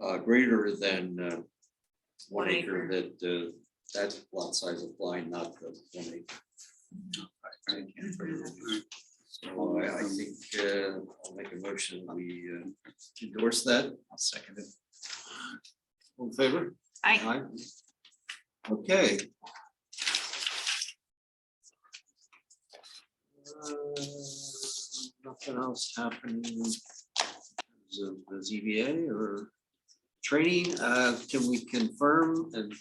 uh, greater than uh, one One acre, that, uh, that lot size applied, not the one acre. I can't remember. So I, I think, uh, I'll make a motion, we uh, endorse that. I'll second it. All in favor? I, Aye. Okay. Uh, Nothing else happening. as of The ZBA or training, uh, can we confirm and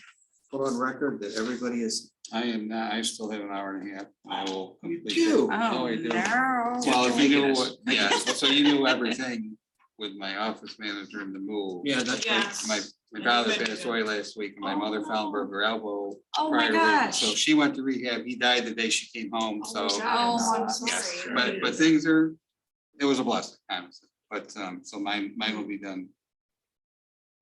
put on record that everybody is, I am not, I still have an hour and a half. I will. you complete do? it. No, oh, I do. no. Well, if you knew what, yeah, so you knew everything with my office manager and the move. Yeah, that's right. Yes. My, my father passed away last week, and my mother found broke her elbow. Oh, my prior to that. So gosh. she went to rehab, he died the day she came home, so. Oh, I'm Yes, sorry. but, but things are, it was a blessing, honestly, but, um, so mine, mine will be done.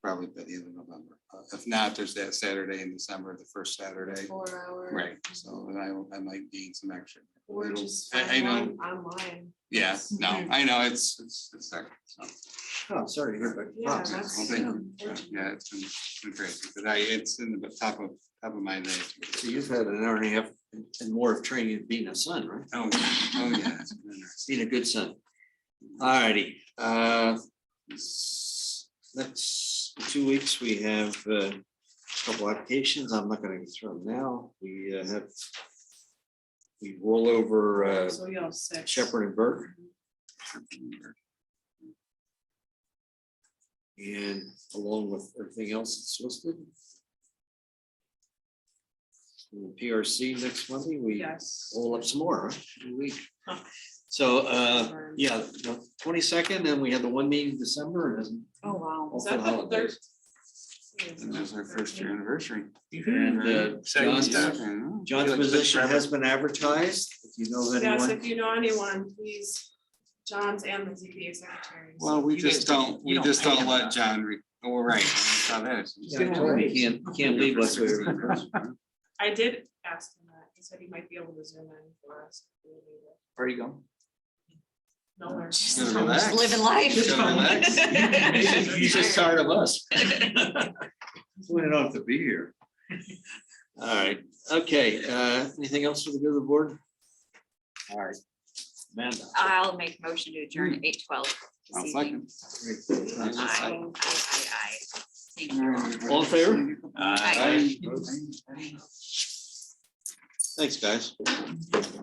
Probably by the end of November, Uh, if not, there's that Saturday in December, the first Saturday, Four hour. right, so then I, will- I might gain some action. Or just I- I online, online. Yeah, no, I know, it's, it's, it's, there, so, Oh, sorry, to hear about your Yeah, problems. yeah, well, that's- thank you. yeah, it's been, it's been great, but I, it's in the top of, top of my head. So you've had an hour and a half and more of training than being a son, right? Oh, oh, yeah. it's been interesting. Being a good son. Alrighty, uh. s- Next two weeks, we have uh, a couple applications. I'm not gonna go through them now. We uh, have. We roll over uh, So you have six. Shepherd and Burke and along with everything else that's listed. And the PRC next Monday, we Yes. roll up some more, right? Every week. Huh. So, uh, yeah, twenty-second, and we had the one meeting in December, and Oh, wow. Also holidays. And that's our first year anniversary. And, uh, John's- John's position has been advertised, if you know of Yes, anyone. if you know anyone, please, John's and the ZBA secretaries. Well, we You guys just don't- don't, you we don't just pay don't them let enough. John, re- oh, we're right. that's how that is. Yeah, I told him he Can't, he can't leave us. with- I did ask him that. He said he might be able to zoom in for us. Where you going? No, we're Gotta just. relax. Just living life. Just relax. He's just tired of us. We don't have to be here. Alright, okay, uh, anything else for the good of the board? Alright. Amanda. I'll make motion to adjourn at eight twelve. this I'll evening. second. Aye, aye, Aye. aye, aye. Thank you all. All in favor? Aye. Aye. Thanks, guys.